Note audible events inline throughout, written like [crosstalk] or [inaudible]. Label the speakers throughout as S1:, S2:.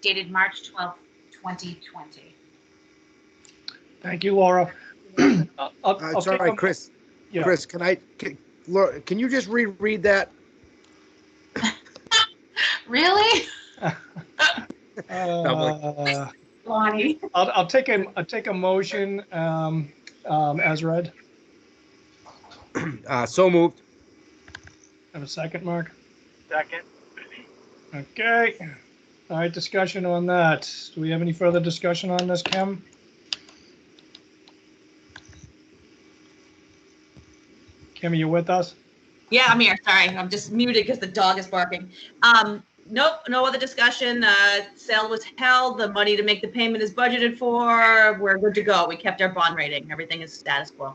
S1: dated March 12th, 2020.
S2: Thank you, Laura. [clears throat] Uh, I'll-
S3: Uh,
S2: I'll
S3: It's all
S2: take
S3: right,
S2: a-
S3: Chris.
S2: Yeah.
S3: Chris, can I, can Laura, can you just reread that?
S1: Really?
S3: [laughs]
S2: Uh,
S1: Lonnie?
S2: I'll, I'll take a, I'll take a motion um, um, as read.
S3: Uh, So moved.
S2: Have a second, Mark?
S4: Second.
S2: Okay. All right, discussion on that. Do we have any further discussion on this, Kim? Kim, are you with us?
S5: Yeah, I'm here. Sorry, I'm just muted because the dog is barking. Um, nope, no other discussion. Uh, sale was held. The money to make the payment is budgeted for. We're good to go. We kept our bond rating. Everything is status quo.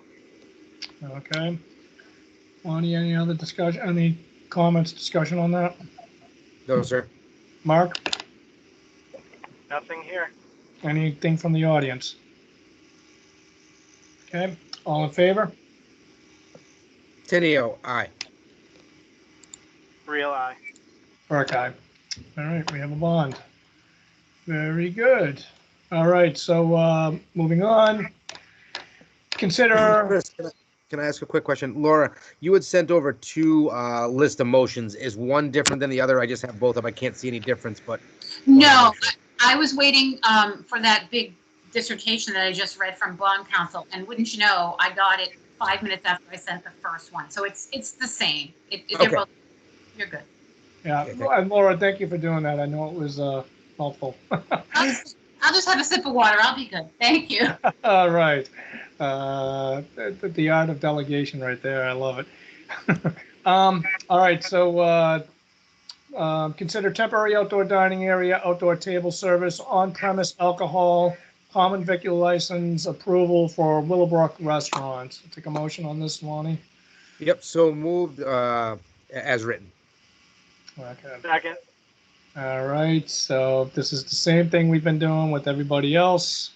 S2: Okay. Lonnie, any other discussion, any comments, discussion on that?
S3: No, sir.
S2: Mark,
S4: Nothing here.
S2: anything from the audience? Okay, all in favor?
S3: Tenio, aye.
S4: Real eye.
S2: Archive. All right, we have a bond. Very good. All right, so uh, moving on. Consider,
S3: Chris, can I- can I ask a quick question? Laura, you had sent over two uh, list of motions. Is one different than the other? I just have both of them. I can't see any difference, but.
S1: No, I was waiting um, for that big dissertation that I just read from bond counsel, and wouldn't you know, I got it five minutes after I sent the first one. So it's, it's the same. It- it- they're
S3: Okay.
S1: both- You're good.
S2: yeah, and Laura, thank you for doing that. I know it was uh, helpful.
S1: I'll just- I'll just have a sip of water. I'll be good. Thank you.
S2: All right. Uh, the, the art of delegation right there. I love it. [laughs] um, all right. So uh, um, consider temporary outdoor dining area, outdoor table service, on premise alcohol, common vicular license approval for Willowbrook restaurants. Take a motion on this, Lonnie.
S3: Yep, so moved uh, a- as written.
S2: Okay.
S4: Second.
S2: All right. So this is the same thing we've been doing with everybody else.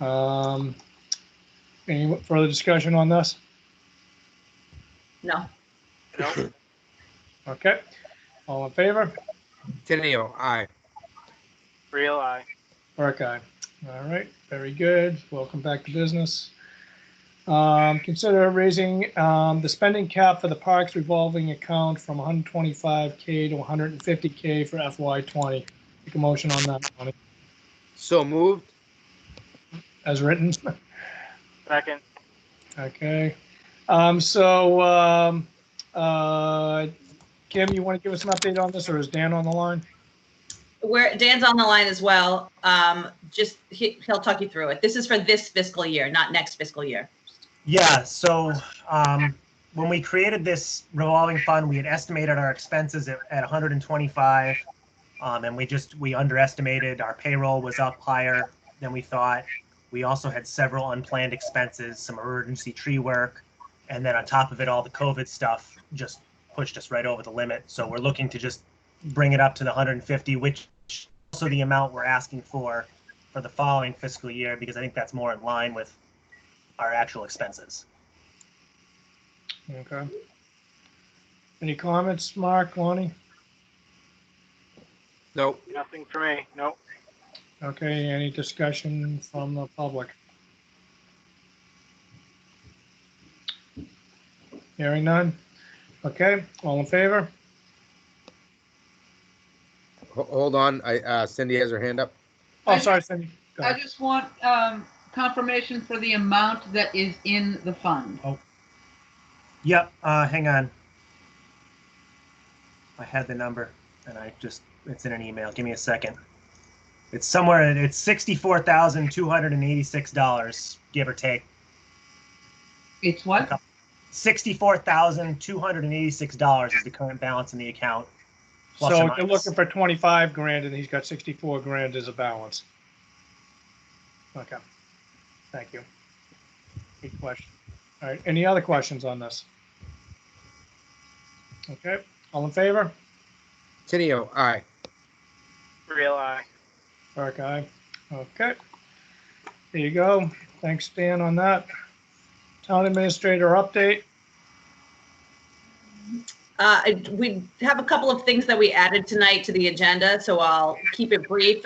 S2: Um, any further discussion on this?
S5: No.
S4: Nope.
S2: Okay, all in favor?
S3: Tenio, aye.
S4: Real eye.
S2: Buckeye. All right, very good. Welcome back to business. Um, consider raising, um, the spending cap for the parks revolving account from hundred twenty-five K to one hundred and fifty K for FY twenty. Take a motion on that, Lonnie,
S3: So moved.
S2: as written.
S4: Second.
S2: Okay. Um, so, um, uh, Kim, you want to give us an update on this or is Dan on the line?
S5: Where Dan's on the line as well. Um, just he, he'll talk you through it. This is for this fiscal year, not next fiscal year.
S6: Yeah, so um, when we created this revolving fund, we had estimated our expenses at, at 125. Um, and we just, we underestimated, our payroll was up higher than we thought. We also had several unplanned expenses, some emergency tree work. And then on top of it, all the COVID stuff just pushed us right over the limit. So we're looking to just bring it up to the 150, which is also the amount we're asking for for the following fiscal year, because I think that's more in line with our actual expenses.
S2: Okay. Any comments, Mark, Lonnie?
S3: No,
S4: Nothing for me. Nope.
S2: Okay, any discussion from the public? Hearing none? Okay, all in favor?
S3: Ho- hold on. I uh, Cindy has her hand up.
S2: Oh, sorry, Cindy. Go
S7: I
S2: ahead.
S7: just want um, confirmation for the amount that is in the fund.
S6: Yep, uh, hang on. I had the number and I just, it's in an email. Give me a second. It's somewhere, it's sixty-four thousand, two hundred and eighty-six dollars, give or take.
S7: It's what?
S6: Sixty-four thousand, two hundred and eighty-six dollars is the current balance in the account. plus or
S2: So they're
S6: minus.
S2: looking for 25 grand and he's got 64 grand as a balance. Okay, thank you. Good question. All right, any other questions on this? Okay, all in favor?
S3: Tenio, aye.
S4: Real eye.
S2: Burke, aye. Okay. There you go. Thanks, Dan, on that. Town administrator update.
S5: Uh, I- we have a couple of things that we added tonight to the agenda, so I'll keep it brief.